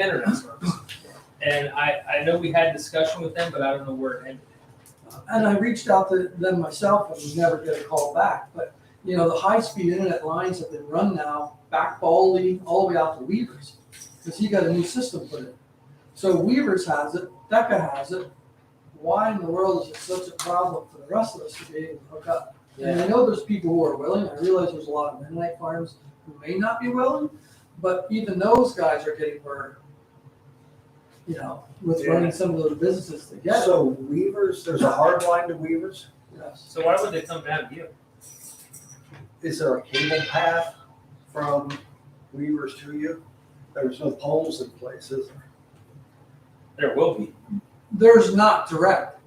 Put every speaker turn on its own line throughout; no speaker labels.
internet service. And I, I know we had discussion with them, but I don't know where it ended.
And I reached out to them myself and was never get a call back, but, you know, the high-speed internet lines have been run now back Baldy all the way out to Weavers, because he got a new system put in. So Weavers has it, Decca has it, why in the world is it such a problem for the rest of us to be able to hook up? And I know there's people who are willing, I realize there's a lot of midnight farms who may not be willing, but even those guys are getting burned. You know, with running some of those businesses together,
So Weavers, there's a hard line to Weavers.
yes.
So why would they come down to you?
Is there a cable path from Weavers to you? There's no poles in place, is there?
There will be.
There's not direct,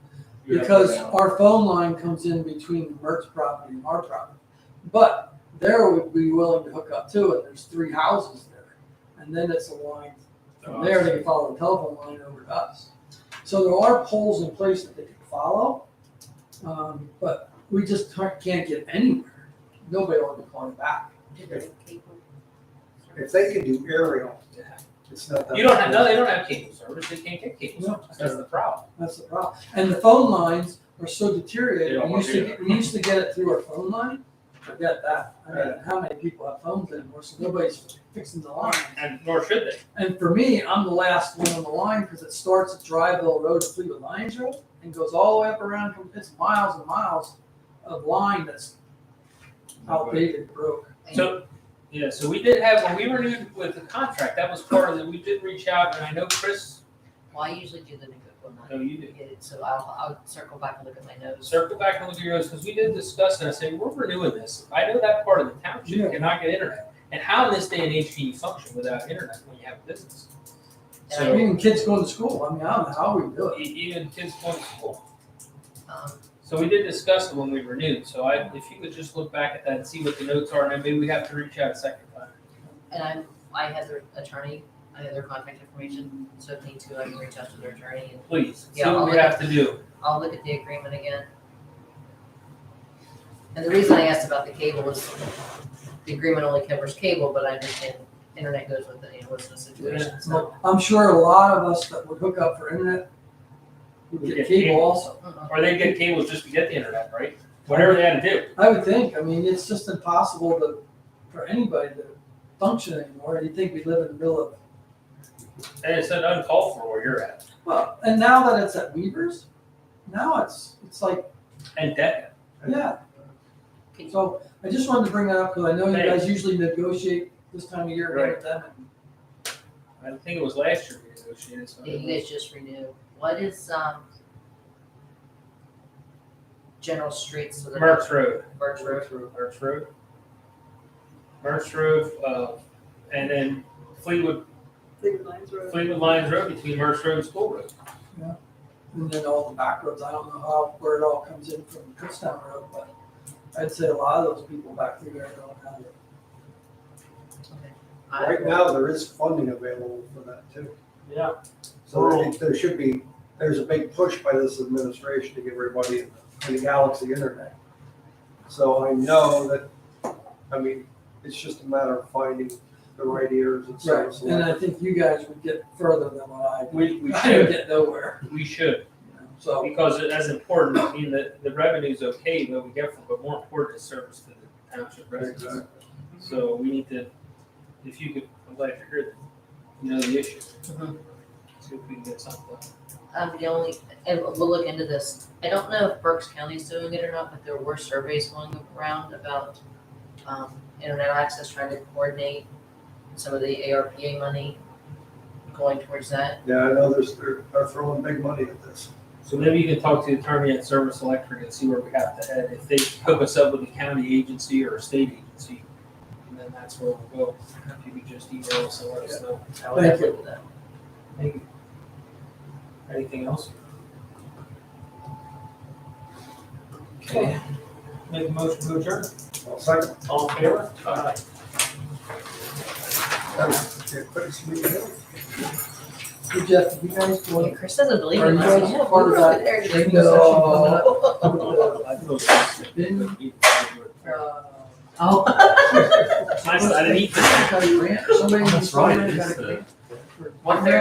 You have to
because
go down.
our phone line comes in between Mertz property and our property. But there would be willing to hook up to it, there's three houses there, and then it's a line
Oh,
from there, they can follow the telephone line over to us. So there are poles in place that they can follow, um, but we just can't can't get anywhere, nobody will be calling back.
If they could do aerial, it's not that.
You don't have, no, they don't have cable service, they can't get cable
No.
service, that's the problem.
That's the problem. And the phone lines are so
They
deteriorated.
don't
We
wanna
used to,
do
get- we used to get it through our phone line. Forget that. I mean, how many people have phones anymore? So nobody's fixing the line.
And nor should they.
And for me, I'm the last one on the line because it starts at Dryville Road to Fleetwood Lions Road and goes all the way up around, it's miles and miles of line that's outdated, broke.
So, yeah, so we did have, when we renewed with the contract, that was part of it, we did reach out, and I know Chris,
Well, I usually do the Nagopa
no,
one,
you did.
get it, so I'll, I'll circle back and look at my notes.
Circle back and look at yours, because we did discuss, and I said, we're renewing this, I know that part of the
Yeah.
township cannot get internet. And how in this day and age can you function without internet when you have a business? So, e-
Even kids going to school, I mean, I don't know how we do it.
even kids going to school.
Um,
So we did discuss it when we renewed, so I, if you could just look back at that and see what the notes are, and then maybe we have to reach out a second time.
and I'm, I had their attorney, I had their contact information, so if need to, I can reach out to their attorney and
Please, see
Yeah, I'll
what we
look
have to do.
I'll look at the agreement again. And the reason I asked about the cable is the agreement only covers cable, but I understand internet goes with it, you know, what's the situation, so.
So I'm sure a lot of us that would hook up for internet would
Would
get
get
cable
cable.
also.
Mhm.
Or they get cables just to get the internet, right? Whatever they had to do.
I would think, I mean, it's just impossible to, for anybody to function anymore, you'd think we live in the middle of,
And it's an uncalled for where you're at.
well, and now that it's at Weavers, now it's, it's like,
And that,
yeah. So I just wanted to bring that up, because I know you guys usually negotiate this time of year with them, and
I think it was last year we negotiated, so.
Yeah, you guys just renew, what is, um, general streets? so they're not-
Mertz Road.
Mertz Road,
Mertz Road. Mertz Road, uh, and then Fleetwood,
Fleetwood Lions Road.
Fleetwood Lions Road between Mertz Road and School Road.
and then all the back roads, I don't know how, where it all comes in from Kutztown Road, but I'd say a lot of those people back through there don't have it.
I-
Right now, there is funding available for that too.
Yeah.
So I think there should be, there's a big push by this administration to give everybody in the galaxy internet. So I know that, I mean, it's just a matter of finding the right ears and so.
Right, and I think you guys would get further than what I,
We, we
I would
should,
get nowhere,
we should,
you know, so.
because it- that's important. I mean, the, the revenue's okay that we get from, but more important is service to the township residents. So we need to, if you could, I'm glad you heard, that, you know, the issue.
Mhm.
See if we can get something.
Um, the only, and we'll look into this, I don't know if Berks County's doing it or not, but there were surveys going around about, um, internet access, trying to coordinate some of the ARPA money going towards that.
Yeah, I know there's, they're they're throwing big money at this.
So maybe you can talk to the attorney at Service Electric and see where we have to head. If they hook us up with a county agency or a state agency, and then that's where we'll go. If you could just email us and let us know.
I would
Thank
have looked at that.
Thank you. Anything else? Okay. Make a motion to adjourn.
Well, second,
All in favor? Aye.
that was the quickest meeting ever.
Hey, Jeff, you guys
Yeah,
going?
Chris doesn't believe
Are
it,
you
I
guys
said, yeah, we
part of
were
that
over there.
training
There's a
session
coming
coming Uh,
up. Oh.
Nice, I didn't eat this.
Somebody-
Oh, That's right,
somebody
it is the-
got a grant.
for.
One thirty